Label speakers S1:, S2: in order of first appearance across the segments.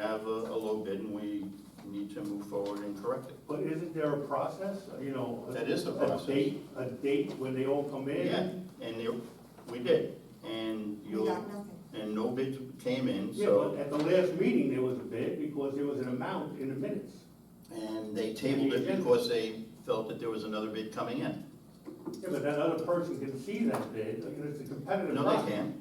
S1: have a, a low bid and we need to move forward and correct it.
S2: But isn't there a process, you know? a-
S1: That is a process.
S2: date, a date when they all come in?
S1: Yeah, and you, we did, and
S3: We
S1: you,
S3: got nothing.
S1: and no bids came in,
S2: Yeah,
S1: so,
S2: but at the last meeting, there was a bid because there was an amount in the minutes.
S1: and they tabled it because they felt that there was another bid coming in.
S2: Yeah, but that other person can see that bid, like, it's a competitive
S1: No,
S2: process.
S1: they can't.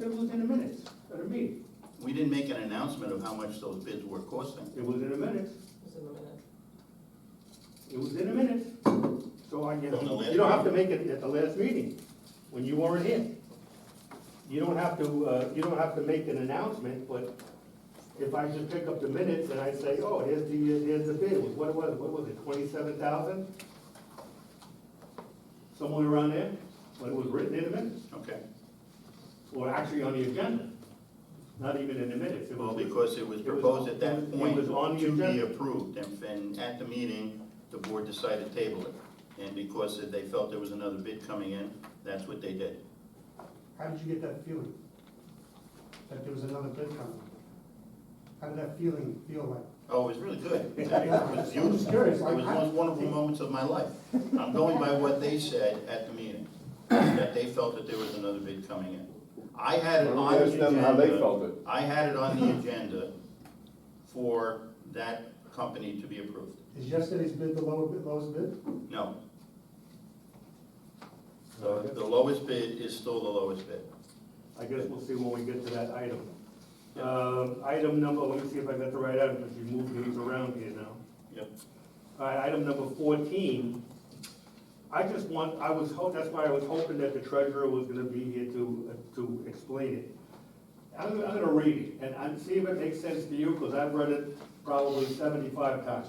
S2: It was in the minutes, at a meeting,
S1: We didn't make an announcement of how much those bids were costing.
S2: it was in the minutes,
S4: Just in a minute.
S2: it was in the minutes. So I guess,
S1: On the last
S2: you don't have to make it at the last meeting, when you weren't here. You don't have to, uh, you don't have to make an announcement, but if I just pick up the minutes and I say, oh, here's the, here's the bid, what was, it? what was it, twenty-seven thousand? Somewhere around there, but it was written in the minutes.
S1: Okay,
S2: Or actually on the agenda, not even in the minutes. It
S1: well,
S2: was-
S1: because it was
S2: It was-
S1: proposed at
S2: it
S1: that
S2: was- it
S1: point
S2: was on the
S1: to be
S2: agenda.
S1: approved, and, and at the meeting, the board decided to table it. And because they felt there was another bid coming in, that's what they did.
S5: How did you get that feeling? That there was another bid coming? How did that feeling feel like?
S1: Oh, it was really good. It was beautiful.
S5: curious.
S1: It was one wonderful moments of my life. I'm going by what they said at the meeting, that they felt that there was another bid coming in. I had it on
S6: Why
S1: the
S6: don't we
S1: agenda.
S6: ask them how they felt it?
S1: I had it on the agenda for that company to be approved.
S5: Is yesterday's bid the lower, bid- lowest bid?
S1: No. The the lowest bid is still the lowest bid.
S2: I guess we'll see when we get to that item. Um, Item number, let me see if I got the right item, because you moved things around here now.
S1: Yep.
S2: All right, item number fourteen. I just want, I was, ho- that's why I was hoping that the treasurer was gonna be here to, uh, to explain it. I'm, I'm gonna read it, and i see if it makes sense to you, because I've read it probably seventy-five times.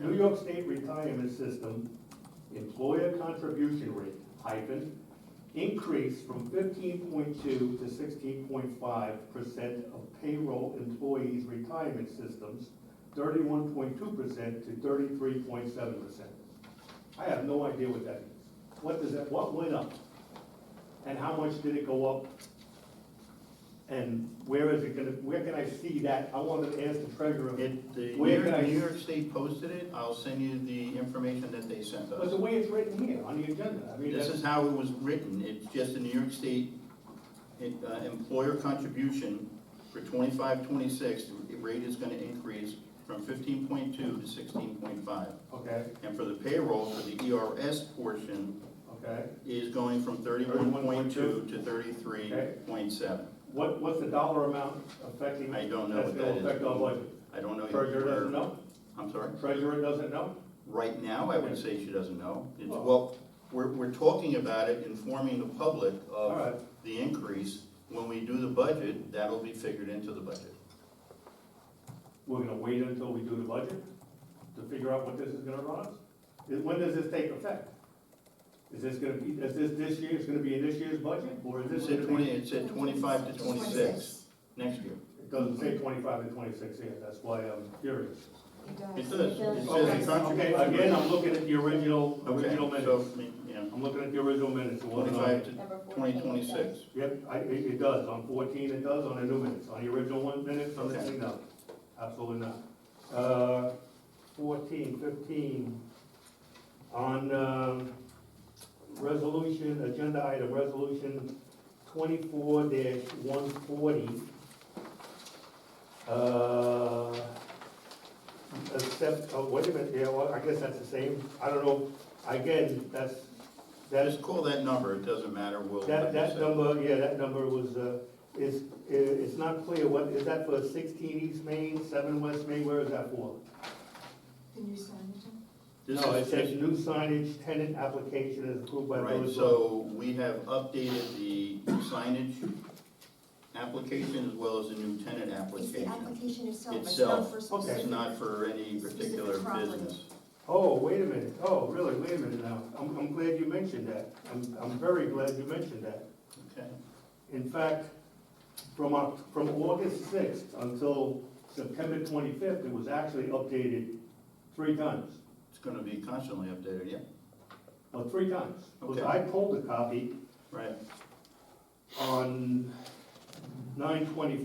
S2: New York State Retirement System employer contribution rate hyphen increase from fifteen point two to sixteen point five percent of payroll employees' retirement systems, thirty-one point two percent to thirty-three point seven percent. I have no idea what that means. What does that, what went up? And how much did it go up? And where is it gonna, where can I see that? I wanted to ask the treasurer.
S1: It, the New
S2: Where can I-
S1: York- New York State posted it. I'll send you the information that they sent us.
S2: But the way it's written here on the agenda, I mean,
S1: This
S2: that's.
S1: is how it was written, it's just a New York State uh, employer contribution for 25-26. the rate is gonna increase from fifteen point two to sixteen point five.
S2: Okay,
S1: And for the payroll, for the ERS portion,
S2: okay.
S1: is going from thirty-one point two to thirty-three point seven.
S2: What, what's the dollar amount affecting?
S1: I don't know what that
S2: That's
S1: is.
S2: gonna affect our budget.
S1: I don't know. if
S2: Treasurer
S1: we're-
S2: doesn't know?
S1: I'm sorry?
S2: Treasurer doesn't know?
S1: Right now, I would say she doesn't know. It's,
S2: Well-
S1: well, we're, we're talking about it, informing the public
S2: All
S1: of
S2: right.
S1: the increase. When we do the budget, that'll be figured into the budget.
S2: We're gonna wait until we do the budget to figure out what this is gonna run us? Is- When does this take effect? Is this gonna be, is this this year, it's gonna be in this year's budget, or is
S1: It
S2: this?
S1: said
S2: gonna be-
S1: twenty, it said twenty-five to twenty-six next year.
S2: It doesn't say twenty-five and twenty-six here, that's why I'm curious.
S1: It
S3: It
S1: does,
S3: does.
S1: it
S2: Okay,
S1: says the
S2: okay,
S1: contribution.
S2: again, I'm looking at the original,
S1: Okay,
S2: original
S1: so,
S2: minutes.
S1: you know,
S2: I'm looking at the original minutes, it wasn't on-
S1: twenty-five to
S3: Number fourteen,
S1: twenty twenty-six.
S2: Yep, I, it, it does, on fourteen it does, on the new minutes, on the original one minutes, on this
S1: Okay.
S2: thing, no, absolutely not. Uh, fourteen, fifteen, on, um, resolution, agenda item, resolution twenty-four one forty. Uh, except, oh, wait a minute, yeah, well, I guess that's the same, I don't know, again, that's, that is
S1: Just call that number, it doesn't matter, we'll.
S2: that, that number, yeah, that number was, uh, is, i- it's not clear, what, is that for sixteen East Main, seven West Main, where is that for?
S3: Can you sign it? Tom?
S1: This
S2: No, it
S1: is-
S2: says new signage, tenant application is approved by
S1: Right,
S2: village.
S1: so we have updated the signage application as well as the new tenant
S3: It's the
S1: application.
S3: application itself, it's
S1: Itself.
S3: not for
S2: Okay.
S3: specific.
S1: It's not for any particular
S3: Specific property.
S1: business.
S2: Oh, wait a minute, oh, really, wait a minute now, I'm, I'm glad you mentioned that, I'm, I'm very glad you mentioned that.
S1: Okay,
S2: In fact, from, Oc- from August sixth until September twenty-fifth, it was actually updated three times.
S1: it's gonna be constantly updated, yeah,
S2: Well, three times, because
S1: Okay.
S2: I pulled a copy
S1: right.
S2: on nine twenty